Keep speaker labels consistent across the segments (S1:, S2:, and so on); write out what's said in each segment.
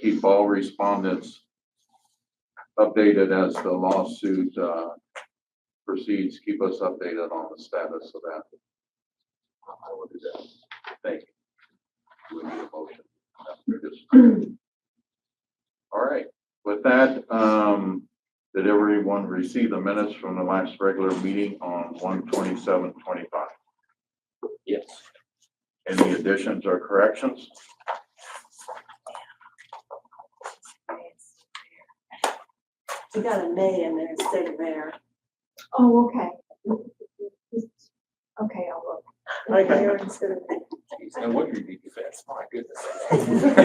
S1: keep all respondents updated as the lawsuit, uh, proceeds. Keep us updated on the status of that. I will do that. Thank you. We need a motion. after this. All right, with that, um, did everyone receive the minutes from the last regular meeting on one twenty-seven twenty-five?
S2: Yes.
S1: Any additions or corrections?
S3: You got a May in there instead of there.
S4: Oh, okay. Okay, I'll look.
S3: Like there instead of.
S2: Geez, No wonder you need your fence, my goodness.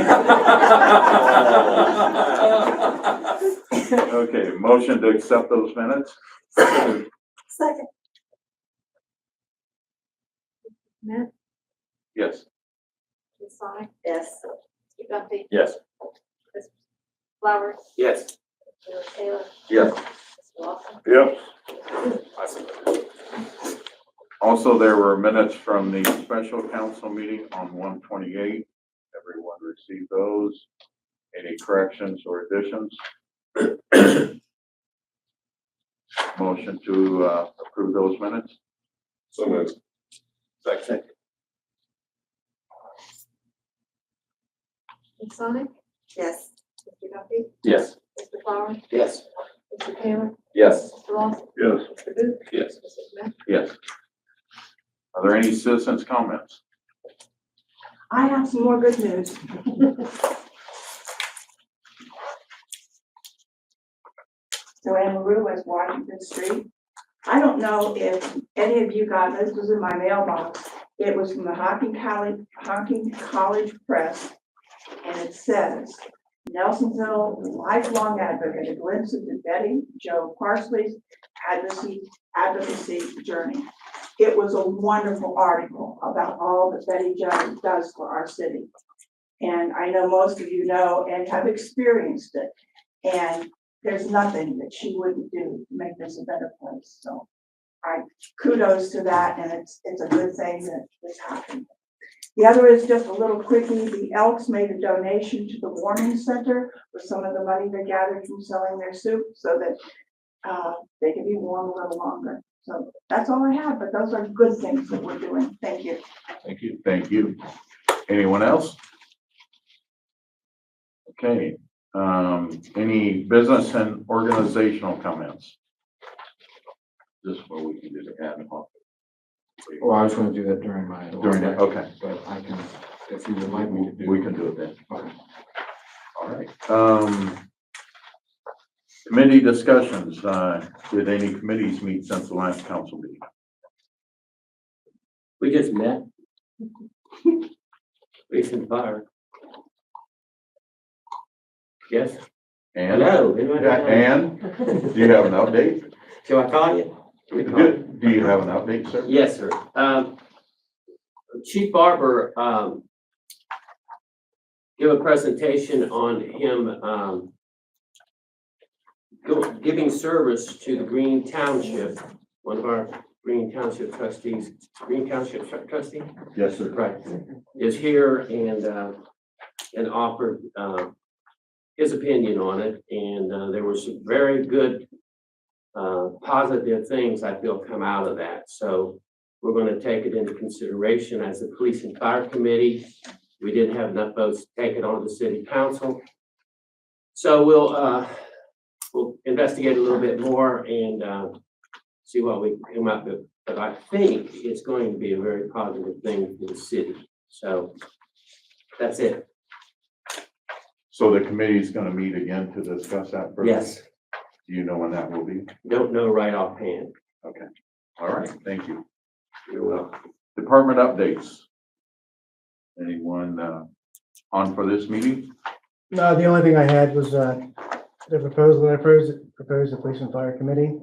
S1: Okay, motion to accept those minutes?
S3: Second.
S4: Matt,
S1: Yes.
S4: Ms. Sonic,
S3: Yes.
S4: Mr. Duffy,
S2: Yes.
S4: Mr. Flowers,
S2: Yes.
S4: Mr. Taylor,
S1: Yes.
S4: Mr. Lawson.
S1: Yep.
S2: I suppose.
S1: Also, there were minutes from the special council meeting on one twenty-eight. Everyone received those. Any corrections or additions? Motion to, uh, approve those minutes?
S5: So moved. Second.
S4: Ms. Sonic,
S3: Yes.
S4: Mr. Duffy,
S2: Yes.
S4: Mr. Flowers,
S2: Yes.
S4: Mr. Taylor,
S2: Yes.
S4: Mr. Lawson,
S1: Yes.
S4: Mr. Booth,
S5: Yes.
S4: Mr. Smith.
S1: Yes. Are there any citizens' comments?
S3: I have some more good news. Joanne LaRue was Washington Street. I don't know if any of you got, this was in my mailbox. It was from the Hocking College, Hocking College Press. And it says, Nelsonville lifelong advocate, a glimpse of the Betty Joe Parsley's advocacy, advocacy journey. It was a wonderful article about all that Betty Jo does for our city. And I know most of you know and have experienced it. And there's nothing that she wouldn't do to make this a better place, so. I kudos to that, and it's, it's a good thing that this happened. The other is just a little quickie, the Elks made a donation to the warming center with some of the money they gathered from selling their soup so that uh, they can be warm a little longer. So that's all I have, but those are good things that we're doing. Thank you.
S1: Thank you. Thank you. Anyone else? Okay, um, any business and organizational comments? This is where we can do the ad hoc.
S6: Well, I was gonna do that during my.
S1: During that, okay,
S6: But I can, if you would like me to do.
S1: we can do it then.
S6: Okay.
S1: All right, um, committee discussions, uh, did any committees meet since the last council meeting?
S2: We just met. We can fire. Yes.
S1: And,
S2: Hello. anyone
S1: Yeah,
S2: else?
S1: and, do you have an update?
S2: Shall I call you? We call you?
S1: Do do you have an update, sir?
S2: Yes, sir. Um, Chief Barber, um, give a presentation on him, um, go- giving service to the Green Township, one of our Green Township trustees, Green Township tr- trustee?
S1: Yes, sir.
S2: Right, is here and, uh, and offered, uh, his opinion on it, and, uh, there were some very good, uh, positive things I feel come out of that, so we're gonna take it into consideration as a police and fire committee. We didn't have enough votes to take it on to city council. So we'll, uh, we'll investigate a little bit more and, uh, see what we come up with but I think it's going to be a very positive thing for the city. So that's it.
S1: So the committee's gonna meet again to discuss that? further?
S2: Yes,
S1: Do you know when that will be?
S2: don't know right offhand.
S1: All right, thank you.
S2: You're welcome.
S1: Department updates. Anyone, uh, on for this meeting?
S7: No, the only thing I had was, uh, the proposal that I proposed, proposed the police and fire committee.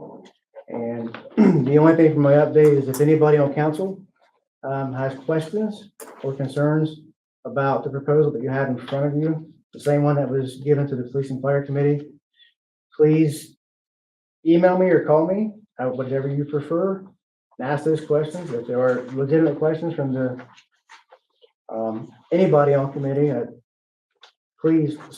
S7: And the only thing from my update is if anybody on council, um, has questions or concerns about the proposal that you have in front of you, the same one that was given to the police and fire committee, please email me or call me, uh, whatever you prefer, and ask those questions. If there are legitimate questions from the, um, anybody on committee, uh, please